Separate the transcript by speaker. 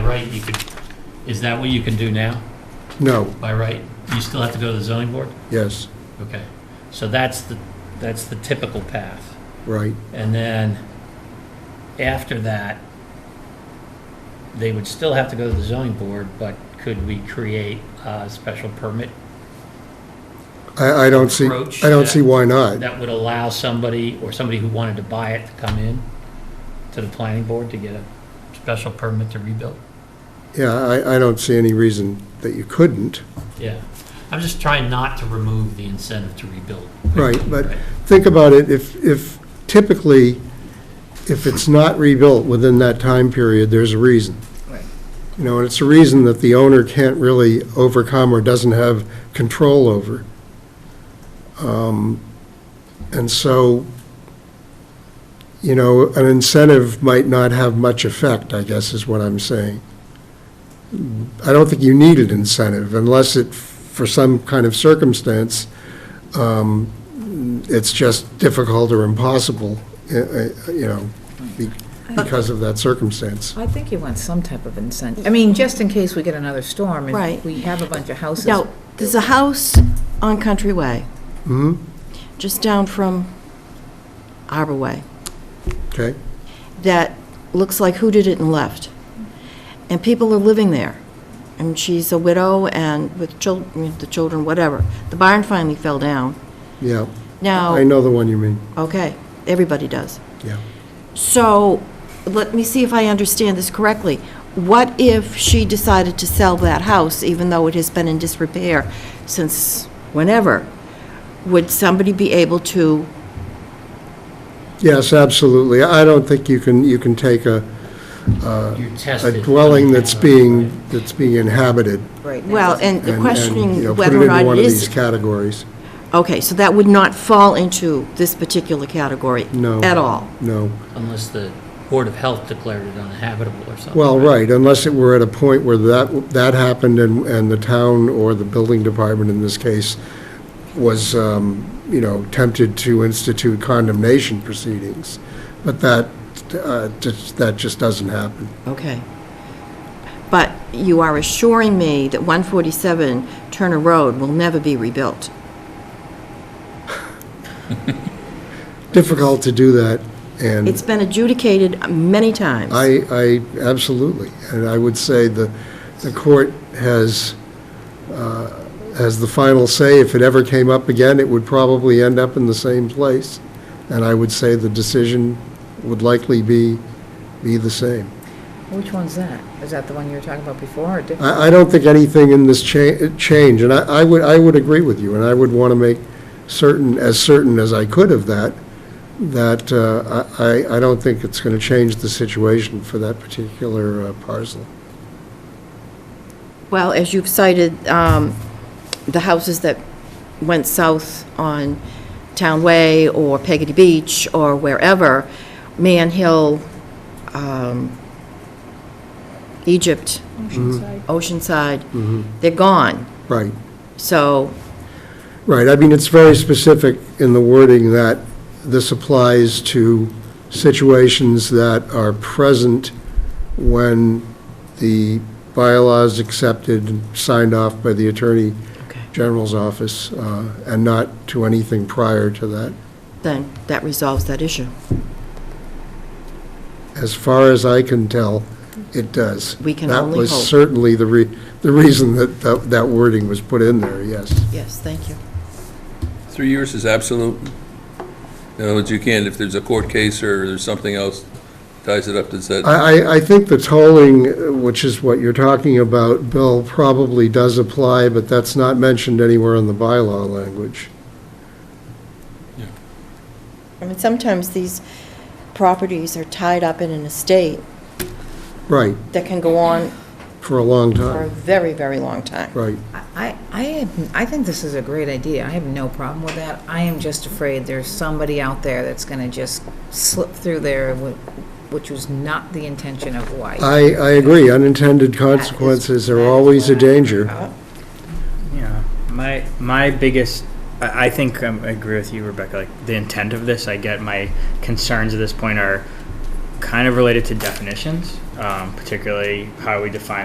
Speaker 1: right, you could, is that what you can do now,
Speaker 2: No,
Speaker 1: by right? You still have to go to the zoning board?
Speaker 2: yes,
Speaker 1: Okay, so that's the, that's the typical path.
Speaker 2: right,
Speaker 1: And then, after that, they would still have to go to the zoning board, but could we create a special permit
Speaker 2: I, I don't see,
Speaker 1: Approach
Speaker 2: I don't
Speaker 1: that-
Speaker 2: see why not.
Speaker 1: that would allow somebody, or somebody who wanted to buy it, to come in to the planning board to get a special permit to rebuild?
Speaker 2: Yeah, I, I don't see any reason that you couldn't.
Speaker 1: Yeah, I'm just trying not to remove the incentive to rebuild.
Speaker 2: Right, but think about it, if, if typically, if it's not rebuilt within that time period, there's a reason.
Speaker 3: Right.
Speaker 2: You know, and it's a reason that the owner can't really overcome or doesn't have control over. Um, And so, you know, an incentive might not have much effect, I guess is what I'm saying. I don't think you need an incentive unless it, for some kind of circumstance, um, it's just difficult or impossible, uh, uh, you know, be- because of that circumstance.
Speaker 3: I think you want some type of incentive. I mean, just in case we get another storm and
Speaker 4: Right.
Speaker 3: we have a bunch of houses.
Speaker 4: Now, there's a house on Country Way,
Speaker 2: Hmm,
Speaker 4: just down from Arbor Way,
Speaker 2: okay,
Speaker 4: that looks like who did it and left. And people are living there. And she's a widow and with children, the children, whatever. The barn finally fell down.
Speaker 2: yeah. I
Speaker 4: Now,
Speaker 2: know the one you mean,
Speaker 4: okay, everybody does.
Speaker 2: yeah.
Speaker 4: So, let me see if I understand this correctly. What if she decided to sell that house, even though it has been in disrepair since whenever? Would somebody be able to,
Speaker 2: Yes, absolutely. I don't think you can, you can take a,
Speaker 1: You
Speaker 2: a
Speaker 1: tested.
Speaker 2: dwelling that's being, that's being inhabited
Speaker 3: Right, that
Speaker 4: well,
Speaker 3: doesn't-
Speaker 4: and
Speaker 2: and, and,
Speaker 4: the
Speaker 2: you know,
Speaker 4: questioning
Speaker 2: put it
Speaker 4: whether or
Speaker 2: into
Speaker 4: not
Speaker 2: one
Speaker 4: it
Speaker 2: of these
Speaker 4: is...
Speaker 2: categories.
Speaker 4: Okay, so that would not fall into this particular category?
Speaker 2: No.
Speaker 4: At all?
Speaker 2: No.
Speaker 1: Unless the Board of Health declared it uninhabitable or something.
Speaker 2: Well, right, unless it were at a point where that, that happened and, and the town or the building department in this case was, um, you know, tempted to institute condemnation proceedings. But that, uh, just- that just doesn't happen.
Speaker 4: Okay. But you are assuring me that 147 Turner Road will never be rebuilt?
Speaker 2: Difficult to do that,
Speaker 4: It's
Speaker 2: and
Speaker 4: been adjudicated many times.
Speaker 2: I, I, absolutely. And I would say the, the court has, uh, has the final say. If it ever came up again, it would probably end up in the same place. And I would say the decision would likely be, be the same.
Speaker 3: Which one's that? Is that the one you were talking about before or different?
Speaker 2: I, I don't think anything in this cha- change, and I, I would, I would agree with you, and I would want to make certain, as certain as I could of that, that uh, I, I- I don't think it's going to change the situation for that particular uh, parcel.
Speaker 4: Well, as you've cited, um, the houses that went south on Town Way or Peggy Beach or wherever, Man Hill, um, Egypt, Mm-hmm.
Speaker 2: Mm-hmm.
Speaker 4: Oceanside, they're gone.
Speaker 2: Right,
Speaker 4: So,
Speaker 2: right. I mean, it's very specific in the wording that this applies to situations that are present when the bylaws accepted, and signed off by the attorney General's office, uh, and not to anything prior to that.
Speaker 4: then that resolves that issue.
Speaker 2: As far as I can tell, it does.
Speaker 4: We can
Speaker 2: That
Speaker 4: only hope.
Speaker 2: was certainly the re, the reason that, that that wording was put in there, yes.
Speaker 4: Yes, thank you.
Speaker 5: Three years is absolute. In other words, you can't, if there's a court case or there's something else ties it up that said,
Speaker 2: I, I, I think the tolling, uh, which is what you're talking about, Bill, probably does apply, but that's not mentioned anywhere in the bylaw language.
Speaker 4: I mean, sometimes these properties are tied up in an estate
Speaker 2: Right,
Speaker 4: that can go on
Speaker 2: for a long
Speaker 4: for a
Speaker 2: time,
Speaker 4: very, very long time.
Speaker 2: right.
Speaker 3: I, I, have- I think this is a great idea. I have no problem with that. I am just afraid there's somebody out there that's going to just slip through there, whi- which was not the intention of why.
Speaker 2: I, I agree, unintended consequences are always a danger.
Speaker 6: Yeah, my my biggest, I, I think um, I agree with you, Rebecca. Like the intent of this, I get my concerns at this point are kind of related to definitions. Um, um, particularly how we define